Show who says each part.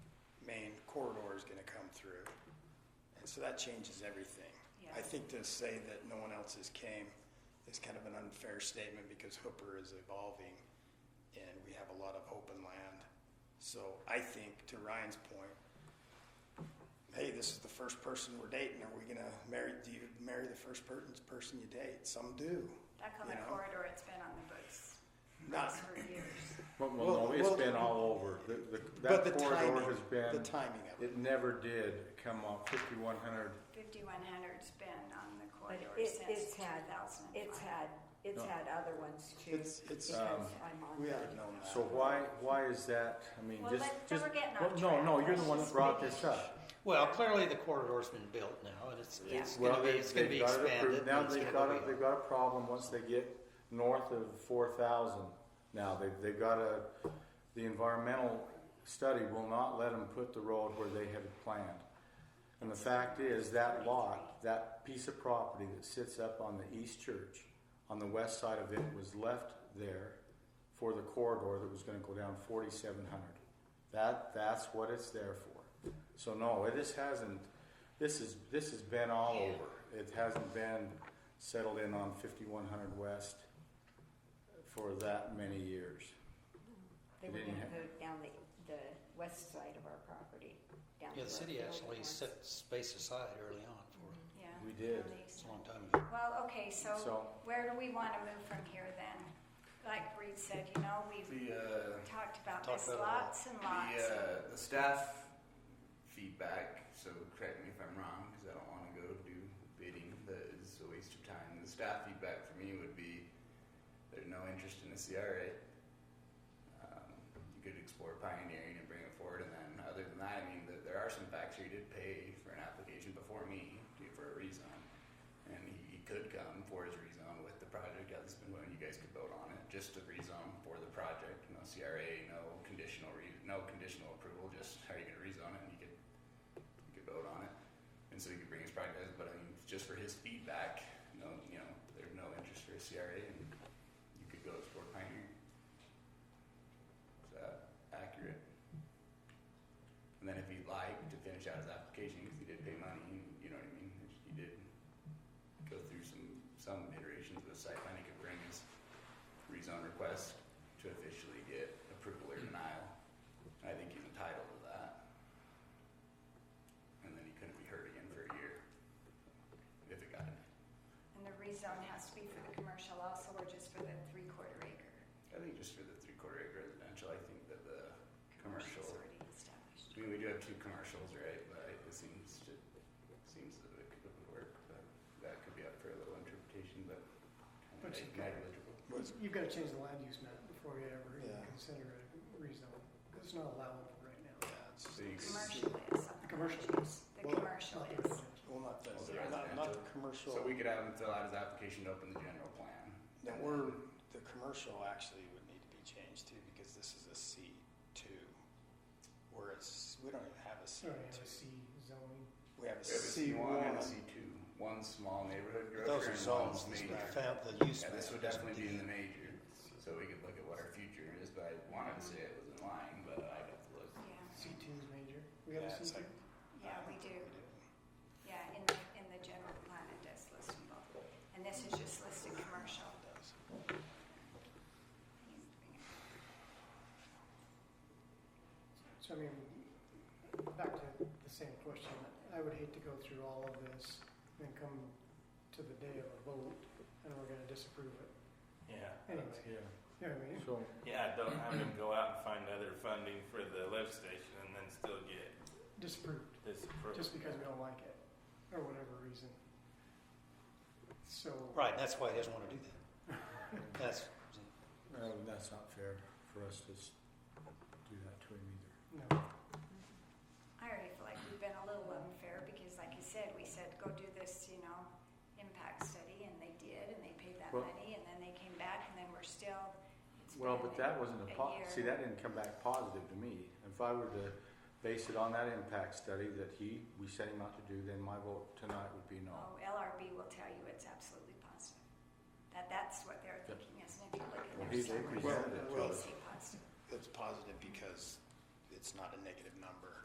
Speaker 1: corridor is gonna come through. And so that changes everything.
Speaker 2: Yeah.
Speaker 1: I think to say that no one else's came is kind of an unfair statement because Hooper is evolving and we have a lot of open land. So I think to Ryan's point, hey, this is the first person we're dating. Are we gonna marry, do you marry the first per- person you date? Some do.
Speaker 2: That
Speaker 1: You
Speaker 2: common
Speaker 1: know? Ah.
Speaker 2: corridor, it's been on the books
Speaker 1: Not,
Speaker 2: for years.
Speaker 3: Well,
Speaker 1: Well,
Speaker 3: well, no, it's
Speaker 1: well-
Speaker 3: been all over. The, the,
Speaker 1: but
Speaker 3: that
Speaker 1: the
Speaker 3: corridor
Speaker 1: timing,
Speaker 3: has
Speaker 1: the
Speaker 3: been,
Speaker 1: timing of it.
Speaker 3: it never did come up fifty-one hundred.
Speaker 2: Fifty-one hundred's been on the
Speaker 4: But
Speaker 2: corridor
Speaker 4: it,
Speaker 2: since
Speaker 4: it's
Speaker 2: two
Speaker 4: had,
Speaker 2: thousand and five.
Speaker 4: it's had, it's
Speaker 3: No.
Speaker 4: had other ones too.
Speaker 1: It's- it's,
Speaker 4: because
Speaker 3: um,
Speaker 4: I'm on
Speaker 1: We
Speaker 4: that.
Speaker 1: ought to know that.
Speaker 3: So why, why is that? I mean,
Speaker 2: Well,
Speaker 3: just,
Speaker 2: let- then
Speaker 3: just.
Speaker 2: we're getting
Speaker 3: well,
Speaker 2: off
Speaker 3: No,
Speaker 2: track.
Speaker 3: no, you're the
Speaker 2: Let's
Speaker 3: one that
Speaker 2: just
Speaker 3: brought
Speaker 2: finish.
Speaker 3: this up.
Speaker 5: Well, clearly the corridor's been built now, and it's,
Speaker 4: Yeah.
Speaker 5: it's
Speaker 3: Well,
Speaker 5: gonna be,
Speaker 3: they-
Speaker 5: it's gonna
Speaker 3: they've
Speaker 5: be
Speaker 3: got it
Speaker 5: expanded.
Speaker 3: approved. Now
Speaker 5: and it's
Speaker 3: they've
Speaker 5: gonna
Speaker 3: got, a-
Speaker 5: be-
Speaker 3: they've got a problem once they get north of four thousand. Now, they, they've got a, the environmental study will not let them put the road where they had planned. And the fact is, that lot, that piece of property that sits up on the east church, on the west side of it, was left there for the corridor that was gonna go down forty-seven hundred. That, that's what it's there for. So no, it just hasn't, this is, this has been all over. It hasn't been settled in on fifty-one hundred west for that many years.
Speaker 4: They were
Speaker 3: They didn't
Speaker 4: gonna
Speaker 3: have-
Speaker 4: move down the, the west side of our property, down the
Speaker 5: Yeah, the city
Speaker 4: road
Speaker 5: actually
Speaker 4: towards-
Speaker 5: set space aside early on for it.
Speaker 2: Yeah.
Speaker 3: We did.
Speaker 2: on the east
Speaker 5: It's
Speaker 2: side.
Speaker 5: a long time ago.
Speaker 2: Well, okay, so
Speaker 3: So-
Speaker 2: where do we want to move from here then? Like Reed said, you know, we've
Speaker 6: The, uh,
Speaker 2: talked about
Speaker 5: Talked
Speaker 2: this
Speaker 5: about it all.
Speaker 2: lots and
Speaker 6: the,
Speaker 2: lots.
Speaker 6: uh, the staff feedback, so correct me if I'm wrong, because I don't want to go do bidding, that is a waste of time. The staff feedback for me would be there's no interest in the CRA. Um, you could explore pioneering and bring it forward, and then other than that, I mean, th there are some facts here. He did pay for an application before me to- for a rezone, and he, he could come for his rezone with the project as been willing. You guys could vote on it, just the rezone for the project, no CRA, no conditional re, no conditional approval. Just how you gonna rezone it, and you could you could vote on it, and so he could bring his project. as- But I mean, just for his feedback, no, you know, there's no interest for a CRA, and you could go explore pioneering. Is that accurate? And then if he'd like to finish out his application, because he did pay money, and you know what I mean, if he did go through some, some iterations of the site plan, he could bring his rezone request to officially get approval or denial. I think he's entitled to that. And then he couldn't be heard again for a year, if it got him.
Speaker 2: And the rezone has to be for the commercial also, or just for the three-quarter acre?
Speaker 6: I think just for the three-quarter acre residential, I think that the
Speaker 2: Commercial's
Speaker 6: Commercial.
Speaker 2: already established.
Speaker 6: I mean, we do have two commercials, right? But it seems to seems that it could work, but that could be up for a little interpretation. But kind
Speaker 7: But
Speaker 6: of
Speaker 7: you
Speaker 6: neg-
Speaker 7: got-
Speaker 6: negligible.
Speaker 1: Was-
Speaker 7: You've got to change the land use map before you ever even
Speaker 1: Yeah.
Speaker 7: consider a rezone. It's not allowable right now.
Speaker 1: Yeah, it's just-
Speaker 6: Big.
Speaker 2: Commercial is.
Speaker 7: The commercial is.
Speaker 2: The
Speaker 1: Well,
Speaker 7: It's
Speaker 2: commercial
Speaker 7: not the
Speaker 2: is.
Speaker 7: residential.
Speaker 1: Well, not the,
Speaker 6: Well, Oh, the
Speaker 1: not, not the
Speaker 6: residential.
Speaker 1: commercial,
Speaker 6: So we could have him fill out his application to open the general plan.
Speaker 1: no, we're, the commercial actually would need to be changed too, because this is a C two. Where it's, we don't even have a C
Speaker 7: Sorry, I have a
Speaker 1: two,
Speaker 7: C zoning.
Speaker 1: we have a
Speaker 6: We have a
Speaker 1: C
Speaker 6: C one
Speaker 1: one.
Speaker 6: and a C two. One small neighborhood grocer
Speaker 1: Those are
Speaker 6: and
Speaker 1: zones,
Speaker 6: one
Speaker 1: this
Speaker 6: major.
Speaker 1: would
Speaker 5: Found the use
Speaker 6: Yeah,
Speaker 5: map.
Speaker 6: this would definitely be in the major, so we could look at what our future is. But I wanted to say it was in line, but I'd have to look.
Speaker 2: Yeah,
Speaker 7: C two is major. We
Speaker 1: Yeah,
Speaker 7: have a
Speaker 1: it's
Speaker 7: C two?
Speaker 1: like-
Speaker 2: yeah, we do. Yeah, in the, in the general plan, it does list them both. And this is just listed commercial.
Speaker 7: So I mean, back to the same question. I would hate to go through all of this and then come to the day of a vote and we're gonna disapprove it.
Speaker 8: Yeah,
Speaker 7: Anyway,
Speaker 3: Yeah,
Speaker 7: you know what I mean?
Speaker 3: so.
Speaker 8: yeah, don't have him go out and find other funding for the lift station and then still get
Speaker 7: Disapproved,
Speaker 8: disapproved.
Speaker 7: just because we don't like it, or whatever reason. So.
Speaker 5: Right, that's why he doesn't wanna do that. That's,
Speaker 3: Well, that's not fair for us to s- do that to him either.
Speaker 7: No.
Speaker 2: I already feel like we've been a little unfair because like you said, we said, go do this, you know, impact study and they did and they paid that
Speaker 3: Well-
Speaker 2: money and then they came back and then we're still. it's
Speaker 3: Well,
Speaker 2: been
Speaker 3: but that wasn't
Speaker 2: a
Speaker 3: a po-
Speaker 2: year.
Speaker 3: see, that didn't come back positive to me. If I were to base it on that impact study that he, we set him out to do, then my vote tonight would be no.
Speaker 2: Oh, LRB will tell you it's absolutely positive. That, that's what they're
Speaker 3: Yeah.
Speaker 2: thinking, isn't it? If you look at
Speaker 3: Well,
Speaker 2: their
Speaker 3: he- they
Speaker 2: summary,
Speaker 3: presented
Speaker 1: it to
Speaker 2: They
Speaker 1: us.
Speaker 2: say positive.
Speaker 1: It's positive because it's not a negative number.